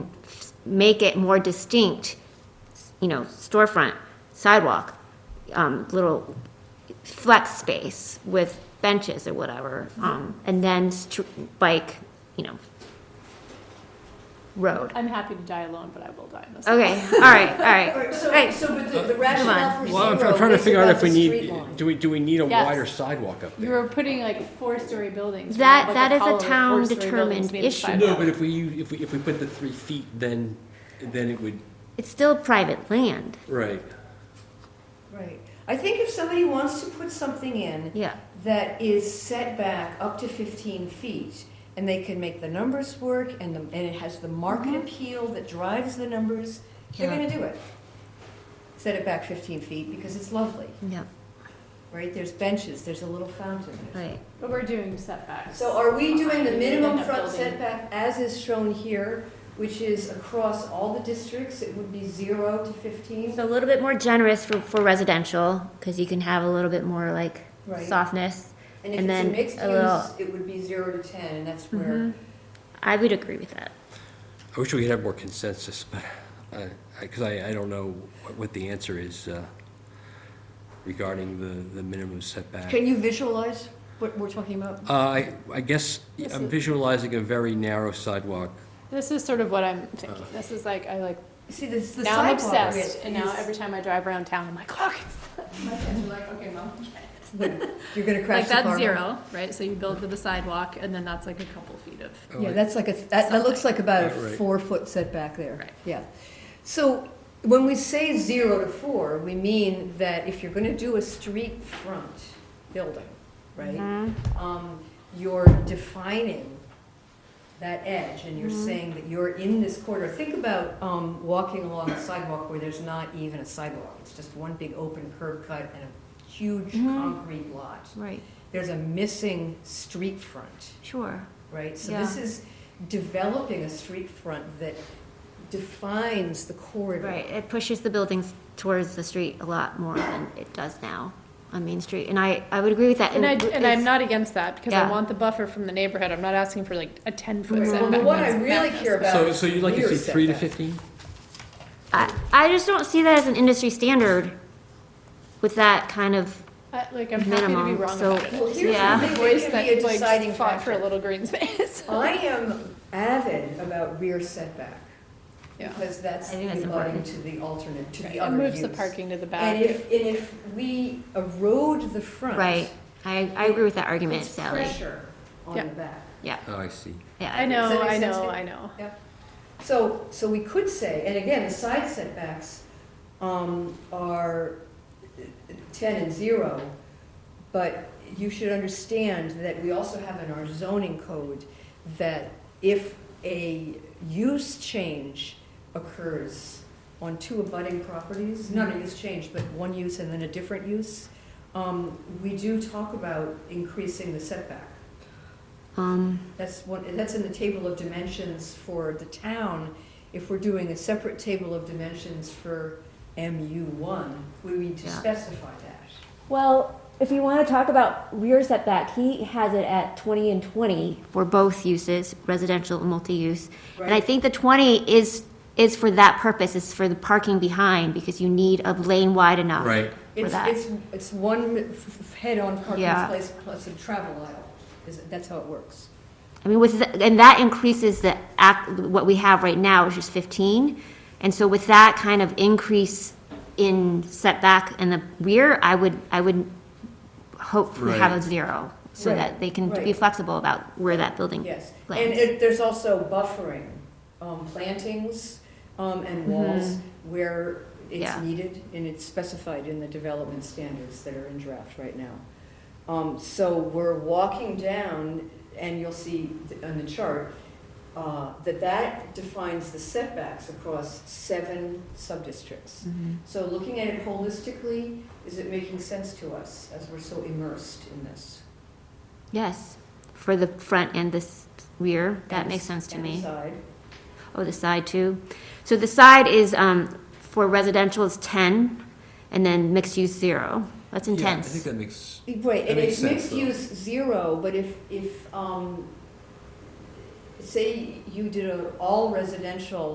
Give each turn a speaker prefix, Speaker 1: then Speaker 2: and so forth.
Speaker 1: make it more distinct, you know, storefront, sidewalk, um, little flex space with benches or whatever,
Speaker 2: Mm-hmm.
Speaker 1: um, and then str- bike, you know, road.
Speaker 3: I'm happy to die alone, but I will die in this.
Speaker 1: Okay, all right, all
Speaker 2: All
Speaker 1: right,
Speaker 2: right, so,
Speaker 1: Right.
Speaker 2: so but the- the rationale for
Speaker 4: Well, I'm
Speaker 2: zero
Speaker 4: I'm trying to
Speaker 2: is
Speaker 4: figure out
Speaker 2: about
Speaker 4: if
Speaker 2: the
Speaker 4: we
Speaker 2: street
Speaker 4: need,
Speaker 2: line.
Speaker 4: do we, do we need a
Speaker 3: Yes.
Speaker 4: wider sidewalk up
Speaker 3: You
Speaker 4: there?
Speaker 3: were putting like four-story buildings.
Speaker 1: That-
Speaker 3: like,
Speaker 1: that is a
Speaker 3: column of
Speaker 1: town
Speaker 3: four-story buildings
Speaker 1: determined
Speaker 3: made of
Speaker 1: issue.
Speaker 3: sidewalk.
Speaker 4: No, but if we, u- if we, if we put the three feet, then, then it would,
Speaker 1: it's still private land,
Speaker 4: right.
Speaker 2: Right. I think if somebody wants to put something in
Speaker 1: yeah.
Speaker 2: that is set back up to fifteen feet, and they can make the numbers work, and the, and it has the market appeal that drives the numbers, they're
Speaker 1: Yeah.
Speaker 2: gonna do it. Set it back fifteen feet, because it's lovely,
Speaker 1: Yeah,
Speaker 2: right? There's benches, there's a little fountain. there's-
Speaker 1: right.
Speaker 3: But we're doing setbacks.
Speaker 2: So are we doing the
Speaker 3: Behind it,
Speaker 2: minimum
Speaker 3: end up
Speaker 2: front
Speaker 3: building-
Speaker 2: setback as is shown here, which is across all the districts, it would be zero to fifteen?
Speaker 1: So a little bit more generous for, for residential, because you can have a little bit more like
Speaker 2: Right.
Speaker 1: softness.
Speaker 2: And if
Speaker 1: And
Speaker 2: it's
Speaker 1: then
Speaker 2: a mixed
Speaker 1: a little- Mm-hmm.
Speaker 2: use, it would be zero to ten, and that's where,
Speaker 1: I would agree with that.
Speaker 4: I wish we could have more consensus, but, I, I, cause I, I don't know what- what the answer is, uh, regarding the, the minimum setback.
Speaker 2: can you visualize what we're talking about?
Speaker 4: Uh, I, I guess I'm visualizing a very narrow sidewalk.
Speaker 3: This is sort of what I'm
Speaker 4: Uh.
Speaker 3: thinking. This is like, I like,
Speaker 2: See, this, the
Speaker 3: now I'm
Speaker 2: sidewalk.
Speaker 3: obsessed,
Speaker 2: is-
Speaker 3: and now
Speaker 2: is-
Speaker 3: every time I drive around town, I'm like, look, it's. My kids are like, okay, mom.
Speaker 2: You're gonna
Speaker 3: Like,
Speaker 2: crash the car.
Speaker 3: that's zero, right? So you build to the sidewalk, and then that's like a couple feet of.
Speaker 4: Oh,
Speaker 2: Yeah,
Speaker 4: I-
Speaker 2: that's like a, that, that looks like about a
Speaker 4: Something. Right.
Speaker 2: four-foot setback there,
Speaker 3: Right.
Speaker 2: yeah. So, when we say zero to four, we mean that if you're gonna do a street front building,
Speaker 1: Mm-hmm.
Speaker 2: right? Um, you're defining that edge, and you're
Speaker 3: Mm-hmm.
Speaker 2: saying that you're in this corridor. Think about, um, walking along a sidewalk where there's not even a sidewalk, it's just one big open curb cut and a huge
Speaker 3: Mm-hmm.
Speaker 2: concrete lot.
Speaker 1: Right,
Speaker 2: There's a missing street front
Speaker 1: sure.
Speaker 2: right? So
Speaker 1: Yeah.
Speaker 2: this is developing a street front that defines the corridor.
Speaker 1: Right, it pushes the buildings towards the street a lot more than it does now on Main Street, and I, I would agree with that.
Speaker 3: And I, and I'm
Speaker 1: it's-
Speaker 3: not against that, because I
Speaker 1: Yeah.
Speaker 3: want the buffer from the neighborhood. I'm not asking for like a ten-foot
Speaker 2: Well,
Speaker 3: setback.
Speaker 2: but what I
Speaker 3: That's
Speaker 2: really
Speaker 3: madness.
Speaker 2: care about
Speaker 4: So,
Speaker 2: is
Speaker 4: so you'd like to
Speaker 2: rear
Speaker 4: see three to
Speaker 2: setback.
Speaker 4: fifteen?
Speaker 1: I, I just don't see that as an industry standard with that kind of,
Speaker 3: I- Like, I'm happy to be
Speaker 1: Minimum,
Speaker 3: wrong
Speaker 1: so-
Speaker 3: about it.
Speaker 2: Well, here's
Speaker 1: Yeah.
Speaker 2: the
Speaker 3: The
Speaker 2: thing
Speaker 3: voice
Speaker 2: that can be a
Speaker 3: that
Speaker 2: deciding
Speaker 3: like fought for
Speaker 2: factor.
Speaker 3: a little green space.
Speaker 2: I am avid about rear setback
Speaker 3: Yeah.
Speaker 2: because that's
Speaker 1: I think that's
Speaker 2: relating
Speaker 1: important.
Speaker 2: to the alternate, to the
Speaker 3: It
Speaker 2: other
Speaker 3: moves the
Speaker 2: use.
Speaker 3: parking to the back.
Speaker 2: And if, and if we erode the front,
Speaker 1: right, I, I agree with that argument,
Speaker 2: it's
Speaker 1: Sally.
Speaker 2: pressure on
Speaker 3: Yeah.
Speaker 2: the back.
Speaker 1: Yeah,
Speaker 4: Oh, I see.
Speaker 2: Ah.
Speaker 1: yeah.
Speaker 3: I
Speaker 2: Does
Speaker 3: know,
Speaker 2: that make
Speaker 3: I
Speaker 2: sense?
Speaker 3: know, I know.
Speaker 2: Yep. So, so we could say, and again, the side setbacks um, are 10 and 0, but you should understand that we also have in our zoning code that if a use change occurs on two abutting properties, not a use change, but one use and then a different use, um, we do talk about increasing the setback.
Speaker 1: Um,
Speaker 2: That's one, that's in the table of dimensions for the town. If we're doing a separate table of dimensions for MU one, we need to
Speaker 1: Yeah.
Speaker 2: specify that.
Speaker 1: Well, if you want to talk about rear setback, he has it at 20 and 20 for both uses, residential and multi-use. And I
Speaker 2: Right.
Speaker 1: think the 20 is, is for that purpose, it's for the parking behind, because you need a lane wide enough.
Speaker 4: Right.
Speaker 1: For
Speaker 2: It's,
Speaker 1: that.
Speaker 2: it's, it's one f- f- head-on parking
Speaker 1: Yeah.
Speaker 2: place plus a travel aisle, is, that's how it works.
Speaker 1: I mean, with, the- and that increases the, act- what we have right now, which is 15. And so with that kind of increase in setback in the rear, I would, I would hope we have a
Speaker 4: Right.
Speaker 1: zero, so
Speaker 2: Right,
Speaker 1: that they can be
Speaker 2: right.
Speaker 1: flexible about where that building
Speaker 2: Yes, and
Speaker 1: lands.
Speaker 2: it, there's also buffering, um, plantings, um, and walls where it's
Speaker 1: Mm-hmm. Yeah.
Speaker 2: needed, and it's specified in the development standards that are in draft right now. Um, so we're walking down, and you'll see th- on the chart, uh, that that defines the setbacks across seven sub-districts. So looking at it holistically, is it making sense to us, as we're so immersed in this?
Speaker 1: Yes, for the front and the s- rear, that
Speaker 2: And
Speaker 1: makes
Speaker 2: s-
Speaker 1: sense to
Speaker 2: and the
Speaker 1: me.
Speaker 2: side.
Speaker 1: Oh, the side too. So the side is, um, for residential is ten, and then mixed use zero. That's
Speaker 4: Yeah, I think
Speaker 1: intense.
Speaker 4: that makes,
Speaker 2: Right,
Speaker 4: That
Speaker 2: and
Speaker 4: makes
Speaker 2: it's
Speaker 4: sense,
Speaker 2: mixed
Speaker 4: though.
Speaker 2: use zero, but if, if, um, say you did a all residential